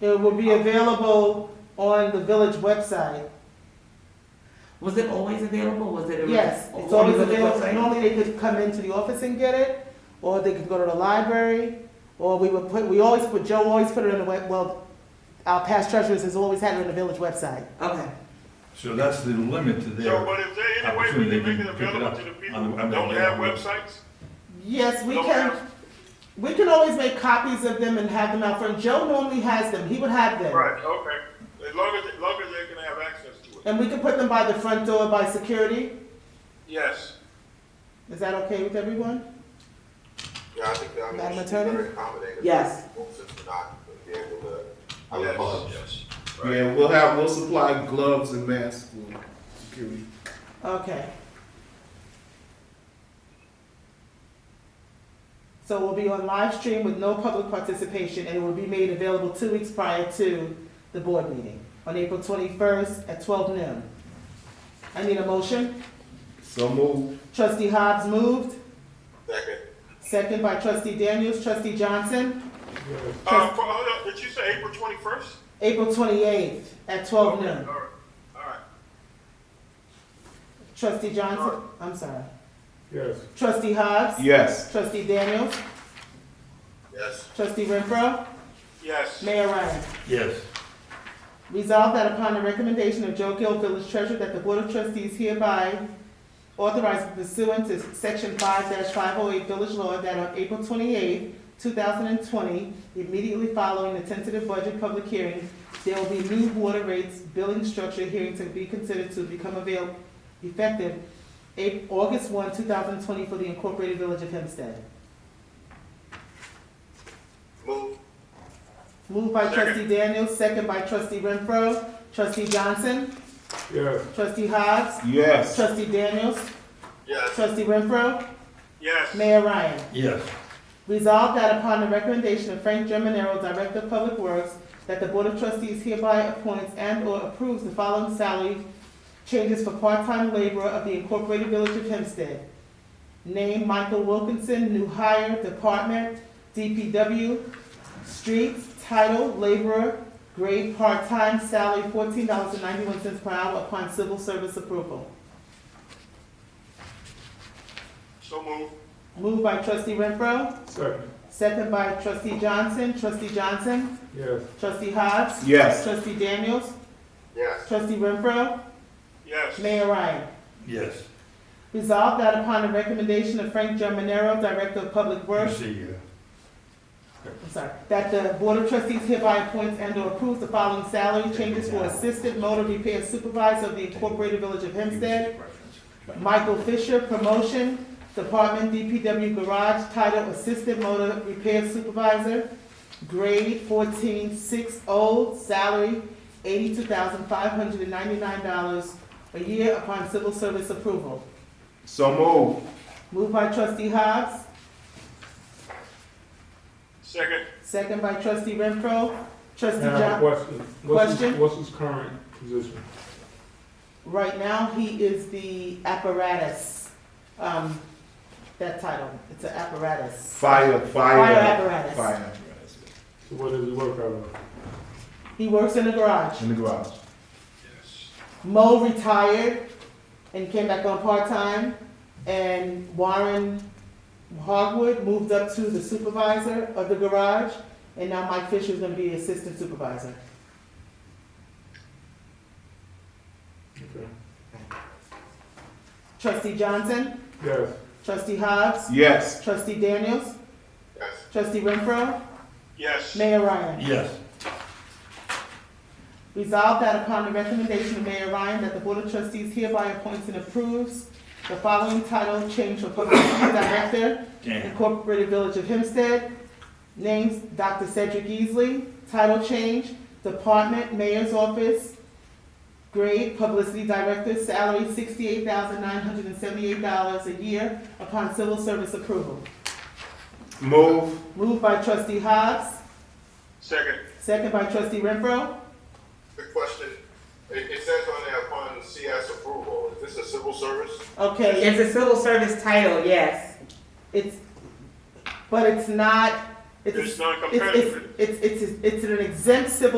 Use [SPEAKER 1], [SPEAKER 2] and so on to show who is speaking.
[SPEAKER 1] It will be available on the village website.
[SPEAKER 2] Was it always available? Was it? a-
[SPEAKER 1] Yes, it's
[SPEAKER 2] on
[SPEAKER 1] always
[SPEAKER 2] Oh, the
[SPEAKER 1] available.
[SPEAKER 2] website?
[SPEAKER 1] Normally they could come into the office and get it, or they could go to the library, or we would put, we always put, Joe always put it on the web, well, our past treasurers has always had it on the village website.
[SPEAKER 2] Okay,
[SPEAKER 3] So that's the limit to
[SPEAKER 4] So,
[SPEAKER 3] their,
[SPEAKER 4] but is there any way we
[SPEAKER 3] Opportunity
[SPEAKER 4] can make it
[SPEAKER 3] to pick it
[SPEAKER 4] available
[SPEAKER 3] up
[SPEAKER 4] to the people
[SPEAKER 3] on the-
[SPEAKER 4] who
[SPEAKER 3] on the-
[SPEAKER 4] don't have websites?
[SPEAKER 1] Yes, we
[SPEAKER 4] Don't
[SPEAKER 1] can,
[SPEAKER 4] have-
[SPEAKER 1] we can always make copies of them and have them out front. Joe normally has them, he would have them.
[SPEAKER 4] Right, okay. As long as, as long as they can have access to it.
[SPEAKER 1] And we can put them by the front door by security.
[SPEAKER 4] Yes.
[SPEAKER 1] Is that okay with everyone?
[SPEAKER 5] Yeah, I think that
[SPEAKER 1] Madam
[SPEAKER 5] was
[SPEAKER 1] Attorney?
[SPEAKER 5] very accommodating.
[SPEAKER 2] yes.
[SPEAKER 5] Since we're not being able to have a
[SPEAKER 4] Yes.
[SPEAKER 5] budget.
[SPEAKER 4] Yes. Right.
[SPEAKER 6] Yeah, we'll have, we'll supply gloves and masks for security.
[SPEAKER 1] Okay. So it will be on live stream with no public participation and it will be made available two weeks prior to the board meeting on April twenty-first at twelve noon. I need a motion.
[SPEAKER 6] So move.
[SPEAKER 1] Trustee Hobbs moved,
[SPEAKER 5] Second,
[SPEAKER 1] second by trustee Daniels, trustee Johnson,
[SPEAKER 4] Uh, for- hold up, did you say April twenty-first?
[SPEAKER 1] April twenty-eighth at
[SPEAKER 5] Oh,
[SPEAKER 1] twelve noon.
[SPEAKER 4] All right, all right.
[SPEAKER 1] Trustee Johnson,
[SPEAKER 4] Sure.
[SPEAKER 1] I'm sorry.
[SPEAKER 7] Yes.
[SPEAKER 1] Trustee Hobbs.
[SPEAKER 6] Yes.
[SPEAKER 1] Trustee Daniels,
[SPEAKER 5] yes,
[SPEAKER 1] trustee Renfro,
[SPEAKER 4] Yes.
[SPEAKER 1] Mayor Ryan.
[SPEAKER 3] yes,
[SPEAKER 1] Resolved that upon the recommendation of Joe Gill, village treasurer, that the board of trustees hereby authorize pursuant to section five five oh eight village law that on April twenty-eighth, two thousand and twenty, immediately following the tentative budget public hearing, there will be new water rates billing structure hearing to be considered to become available effective Ap- August one, two thousand and twenty for the incorporated village of Hempstead.
[SPEAKER 5] move,
[SPEAKER 1] Moved by
[SPEAKER 4] Second.
[SPEAKER 1] trustee Daniels, second by trustee Renfro, trustee Johnson,
[SPEAKER 7] Yes.
[SPEAKER 1] trustee Hobbs,
[SPEAKER 6] Yes.
[SPEAKER 1] Trustee Daniels,
[SPEAKER 5] yes,
[SPEAKER 1] trustee Renfro,
[SPEAKER 4] Yes.
[SPEAKER 1] Mayor Ryan.
[SPEAKER 3] yes,
[SPEAKER 1] Resolved that upon the recommendation of Frank Germanero, Director of Public Works, that the Board of Trustees hereby appoints and/or approves the following salary changes for part-time laborer of the Incorporated Village of Hempstead. Name Michael Wilkinson, new hire, department, DPW, streets, title, laborer, grade part-time, salary fourteen dollars and ninety-one cents per hour upon civil service approval.
[SPEAKER 4] So move.
[SPEAKER 1] Moved by trustee Renfro.
[SPEAKER 7] Second.
[SPEAKER 1] Second by trustee Johnson, trustee Johnson,
[SPEAKER 7] Yes.
[SPEAKER 1] trustee Hobbs,
[SPEAKER 6] Yes.
[SPEAKER 1] trustee Daniels,
[SPEAKER 5] yes,
[SPEAKER 1] trustee Renfro,
[SPEAKER 4] Yes.
[SPEAKER 1] Mayor Ryan.
[SPEAKER 3] yes.
[SPEAKER 1] Resolved that upon the recommendation of Frank Germanero, Director of Public
[SPEAKER 3] You
[SPEAKER 1] Works,
[SPEAKER 3] see, uh,
[SPEAKER 1] I'm sorry, that the Board of Trustees hereby appoints and or approves the following salary changes for Assistant Motor Repair Supervisor of the Incorporated Village of Hempstead, Michael Fisher, promotion, Department DPW Garage, title Assistant Motor Repair Supervisor, grade fourteen six oh, salary eighty-two thousand five hundred and ninety-nine dollars a year upon civil service approval.
[SPEAKER 6] So move.
[SPEAKER 1] Moved by trustee Hobbs,
[SPEAKER 4] Second.
[SPEAKER 1] second by trustee Renfro, trustee
[SPEAKER 7] I
[SPEAKER 1] Johnson.
[SPEAKER 7] have a question. What's his-
[SPEAKER 1] Question?
[SPEAKER 7] What's his current position?
[SPEAKER 1] Right now, he is the apparatus, um, that title, it's an apparatus.
[SPEAKER 6] Fire,
[SPEAKER 1] Fire
[SPEAKER 6] fire.
[SPEAKER 1] apparatus.
[SPEAKER 6] apparatus.
[SPEAKER 7] So what does he work out of?
[SPEAKER 1] He works in the garage.
[SPEAKER 6] In the garage.
[SPEAKER 4] Yes.
[SPEAKER 1] Mo retired and came back on part time, and Warren Hogwood moved up to the supervisor of the garage, and now Mike Fisher is going to be assistant supervisor.
[SPEAKER 7] Okay.
[SPEAKER 1] Trustee Johnson,
[SPEAKER 7] Yes.
[SPEAKER 1] Trustee Hobbs,
[SPEAKER 6] Yes.
[SPEAKER 1] Trustee Daniels,
[SPEAKER 5] yes.
[SPEAKER 1] Trustee Renfro,
[SPEAKER 4] Yes.
[SPEAKER 1] Mayor Ryan.
[SPEAKER 3] Yes,
[SPEAKER 1] Resolved that upon the recommendation of Mayor Ryan, that the Board of Trustees hereby appoints and approves the following title change for Public Safety Director
[SPEAKER 3] damn,
[SPEAKER 1] Incorporated Village of Hempstead. Names, Dr. Cedric Easley. Title change, Department, Mayor's Office. Grade, Publicity Director, salary sixty-eight thousand nine hundred and seventy-eight dollars a year upon civil service approval.
[SPEAKER 6] Move.
[SPEAKER 1] Moved by trustee Hobbs,
[SPEAKER 4] Second.
[SPEAKER 1] second by trustee Renfro.
[SPEAKER 5] Good question. It, it says on there upon CS approval, is this a civil service?
[SPEAKER 1] Okay,
[SPEAKER 2] It's a civil service title, yes.
[SPEAKER 1] it's, but it's not, it's,
[SPEAKER 4] It's
[SPEAKER 1] it's,
[SPEAKER 4] non-competitive.
[SPEAKER 1] it's, it's, it's, it's an exempt civil